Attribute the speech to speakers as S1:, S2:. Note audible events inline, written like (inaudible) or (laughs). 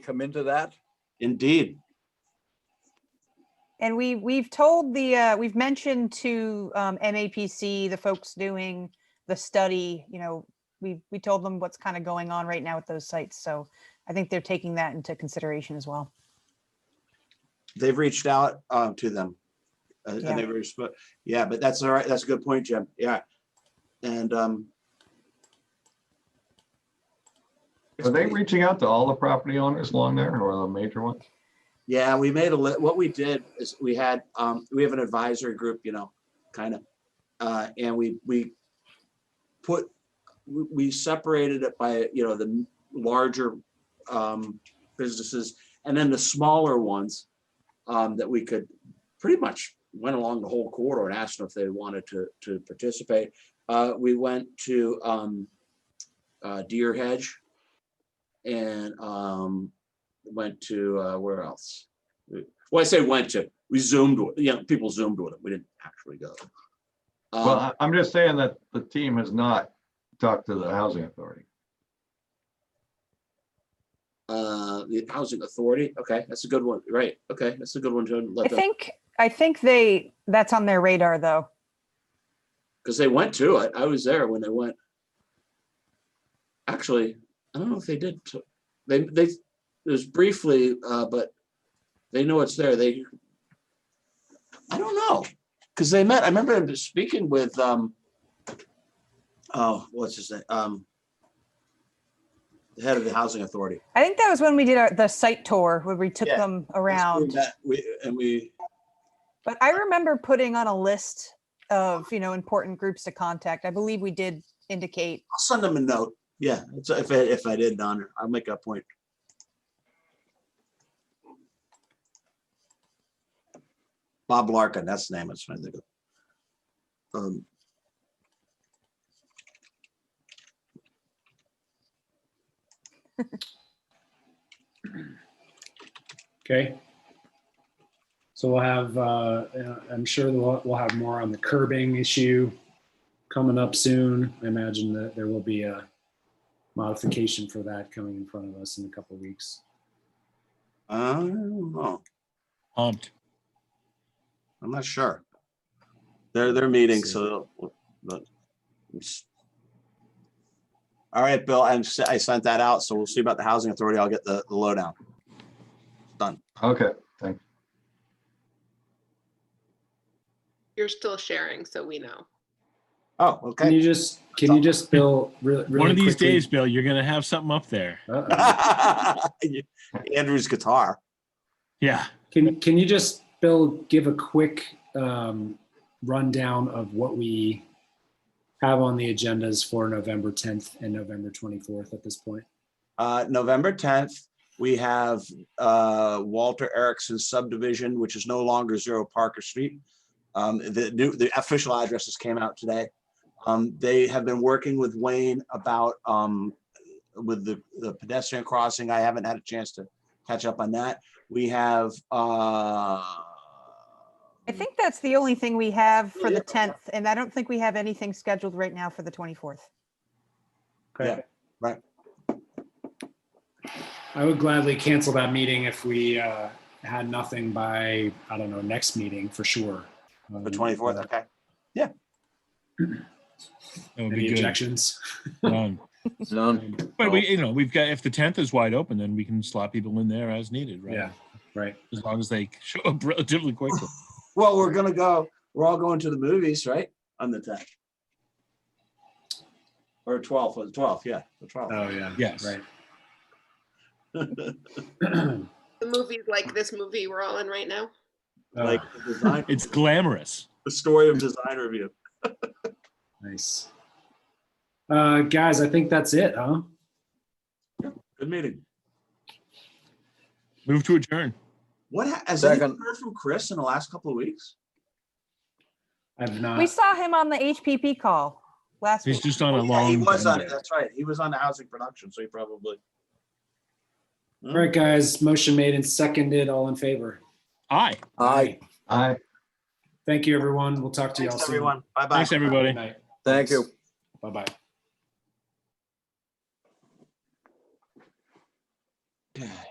S1: come into that?
S2: Indeed.
S3: And we, we've told the, uh, we've mentioned to, um, MAPC, the folks doing the study, you know, we, we told them what's kind of going on right now with those sites. So I think they're taking that into consideration as well.
S2: They've reached out uh, to them. uh,
S3: Yeah.
S2: And they've reached, but yeah, but that's all right. That's a good point, Jim. Yeah. And um,
S4: Are they reaching out to all the property owners along there or the major ones?
S2: yeah, we made a, li- what we did is we had, um, we have an advisory group, you know, kind of. Uh, and we, we put, we, we separated it by, you know, the larger um, businesses and then the smaller ones um, that we could pretty much went along the whole corridor and asked them if they wanted to, to participate. Uh, we went to um, uh, Deer Hedge and um, went to, uh, where else? We- Well, I say went to, we zoomed, with- you know, people zoomed with it. We didn't actually go. Um,
S4: Well, I- I'm just saying that the team has not talked to the housing authority.
S2: Uh, the housing authority. Okay, that's a good one. Right. Okay, that's a good one to
S3: I
S2: let them,
S3: think, I think they, that's on their radar though.
S2: because they went to it. I was there when they went. Actually, I don't know if they did. t- They, they, it was briefly, uh, but they know it's there. They, I don't know, because they met, I remember them speaking with, um, oh, what's his name? Um, the head of the housing authority.
S3: I think that was when we did our, the site tour where we took
S2: Yeah.
S3: them
S2: We
S3: around.
S2: met- We, and we,
S3: But I remember putting on a list of, you know, important groups to contact. I believe we did indicate.
S2: I'll send them a note. Yeah, it's- if I, if I did, Don, I'll make a point. Bob Larkin, that's the name, it's trying to think of. Um,
S5: Okay. So we'll have, uh, I'm sure we'll, we'll have more on the curbing issue coming up soon. I imagine that there will be a modification for that coming in front of us in a couple of weeks.
S2: I don't know,
S6: Pumped.
S2: I'm not sure. They're, they're meeting, so, but. All right, Bill, I'm, s- I sent that out, so we'll see about the housing authority. I'll get the the lowdown.
S4: Okay,
S7: You're still sharing, so we know.
S2: Oh,
S5: Can
S2: okay.
S5: you just, can you just, Bill, really?
S6: One of
S5: really
S6: these
S5: quickly-
S6: days, Bill, you're gonna have something up there.
S5: Uh-oh.
S2: (laughs) Andrew's guitar.
S6: Yeah.
S5: Can, can you just, Bill, give a quick um, rundown of what we have on the agendas for November 10th and November 24th at this point?
S2: Uh, November tenth, we have, uh, Walter Erickson subdivision, which is no longer Zero Parker Street. Um, the new, the official addresses came out today. Um, they have been working with Wayne about, um, with the, the pedestrian crossing. I haven't had a chance to catch up on that. We have, uh,
S3: I think that's the only thing we have for
S2: Yeah.
S3: the 10th, and I don't think we have anything scheduled right now for the 24th.
S2: Yeah, right.
S5: I would gladly cancel that meeting if we uh, had nothing by, I don't know, next meeting for sure. Um,
S2: the twenty-fourth, okay.
S6: That would
S5: Any
S6: be good.
S5: objections?
S6: None.
S1: None.
S6: Um, But we, you know, we've got, if the tenth is wide open, then we can slot people in there as needed, right?
S5: Yeah, right.
S6: As long as they (laughs) show up relatively quickly.
S2: Well, we're gonna go, we're all going to the movies, right? On the tenth. Or twelfth, or the twelfth, yeah, the twelfth.
S5: Oh, yeah.
S6: Yes.
S5: (clears throat)
S2: (laughs)
S6: Uh,
S5: Right.
S7: The movies like this movie we're all in right now.
S5: Uh,
S2: like the design,
S6: It's glamorous.
S2: the story of design review.
S5: Nice. Uh, guys, I think that's it, huh?
S2: Good meeting.
S6: Move to adjourn.
S2: What ha- has anyone
S1: Second.
S2: heard from Chris in the last couple of weeks?
S5: I've not.
S3: We saw him on the HPP call last
S6: He's
S3: week.
S6: just on a
S2: Yeah, he
S6: long.
S2: was on.
S6: bender.
S2: That's right. He was on the housing production, so he probably.
S5: All right, guys, motion made and seconded, all in favor.
S6: Aye.
S1: Aye,
S4: I,
S5: Thank you, everyone. We'll talk to you all
S2: Thanks,
S5: soon.
S2: everyone. Bye bye.
S6: Thanks, everybody.
S5: Good night.
S1: thank you.
S5: Bye-bye.
S2: everyone.